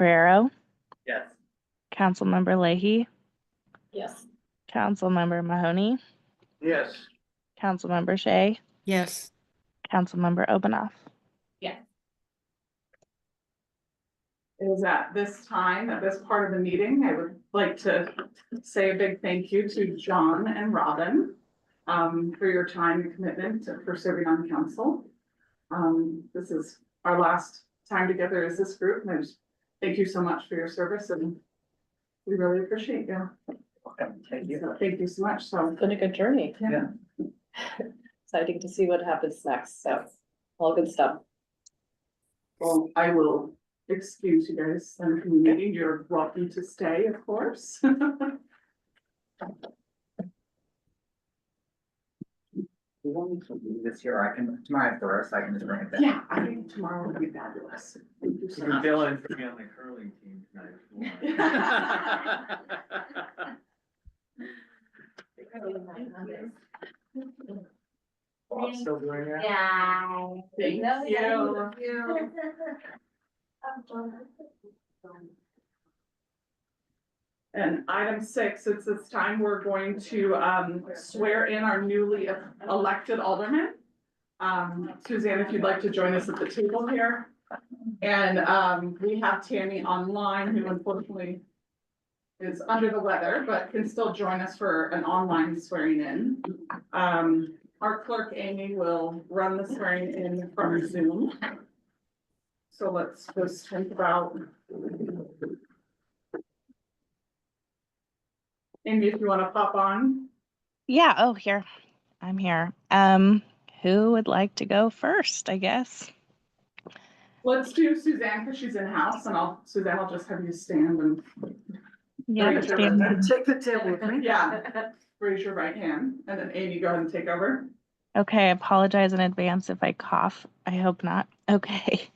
Carrero, Yes. Councilmember Leahy, Yes. Councilmember Mahoney, Yes. Councilmember Shea, Yes. Councilmember Obanoff. It is at this time, at this part of the meeting, I would like to say a big thank you to John and Robin um, for your time and commitment to- for serving on council. Um, This is our last time together as this group, and I just thank you so much for your service and we really appreciate you. Thank you. So Thank you so much, so. Been a good journey. Yeah. Exciting to see what happens next, so all good stuff. Well, I will excuse you guys from the meeting. You're welcome to stay, of course. We don't need to leave this here, I can, tomorrow after, so I can just bring it back. Yeah, I think tomorrow will be fabulous. Thank you so much. Dylan's gonna be on the curling team tonight. Bob's still doing that? Yeah. Thank you. And item six, it's this time we're going to um swear in our newly elected alderman. Um, Suzanne, if you'd like to join us at the table here. And um, we have Tammy online who unfortunately is under the weather, but can still join us for an online swearing in. Um, our clerk Amy will run the swearing in from Zoom. So let's just think about. Amy, if you want to pop on, Yeah, oh, here. I'm here. Um, who would like to go first, I guess? let's do Suzanne because she's in house and I'll, Suzanne, I'll just have you stand and, Yeah, Rachel, stand right? up. Take the table with me. yeah. Raise your right hand and then Amy, go ahead and take over. Okay, I apologize in advance if I cough. I hope not. Okay.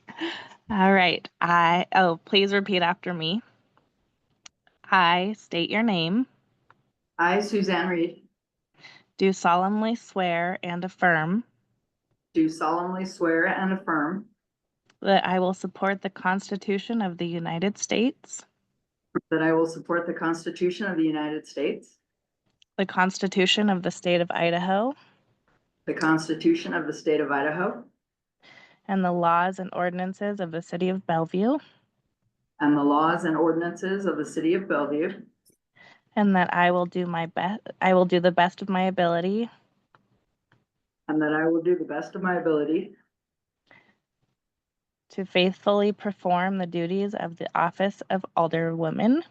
All right. I, oh, please repeat after me. I state your name, I, Suzanne Reed, do solemnly swear and affirm do solemnly swear and affirm that I will support the Constitution of the United States, that I will support the Constitution of the United States, the Constitution of the State of Idaho, the Constitution of the State of Idaho, and the laws and ordinances of the City of Bellevue, and the laws and ordinances of the City of Bellevue, and that I will do my best, I will do the best of my ability and that I will do the best of my ability to faithfully perform the duties of the Office of Alderwoman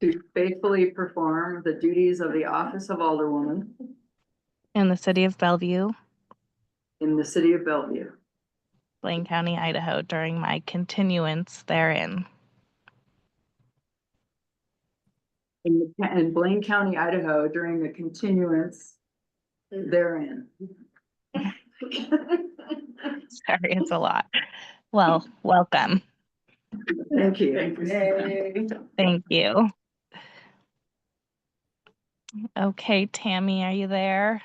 to faithfully perform the duties of the office of Alderwoman in the City of Bellevue, in the City of Bellevue, Blaine County, Idaho, during my continuance therein. in the- in Blaine County, Idaho, during the continuance therein. Sorry, it's a lot. Well, welcome. Thank you. Thank you. Suzanne. Thank you. Okay, Tammy, are you there?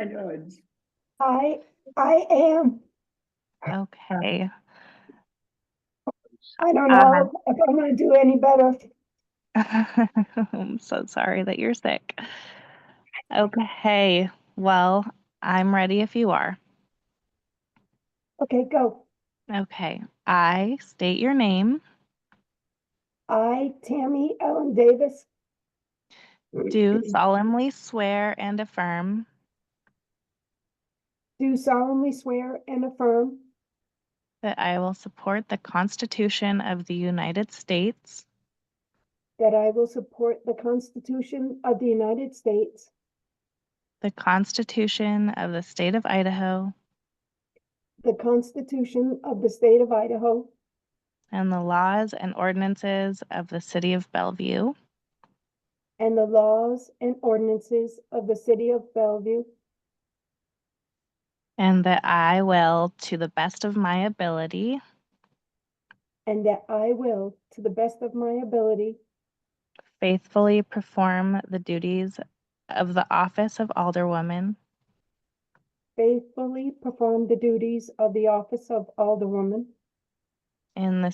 I, I am, Okay. I don't Uh-huh. know if I'm gonna do any better. I'm so sorry that you're sick. Okay, well, I'm ready if you are. Okay, go. Okay, I state your name, I, Tammy Ellen Davis, do solemnly swear and affirm do solemnly swear and affirm that I will support the Constitution of the United States, that I will support the Constitution of the United States, the Constitution of the State of Idaho, the Constitution of the State of Idaho, and the laws and ordinances of the City of Bellevue, and the laws and ordinances of the City of Bellevue, and that I will, to the best of my ability, and that I will, to the best of my ability, faithfully perform the duties of the office of Alderwoman faithfully perform the duties of the office of Alderwoman in the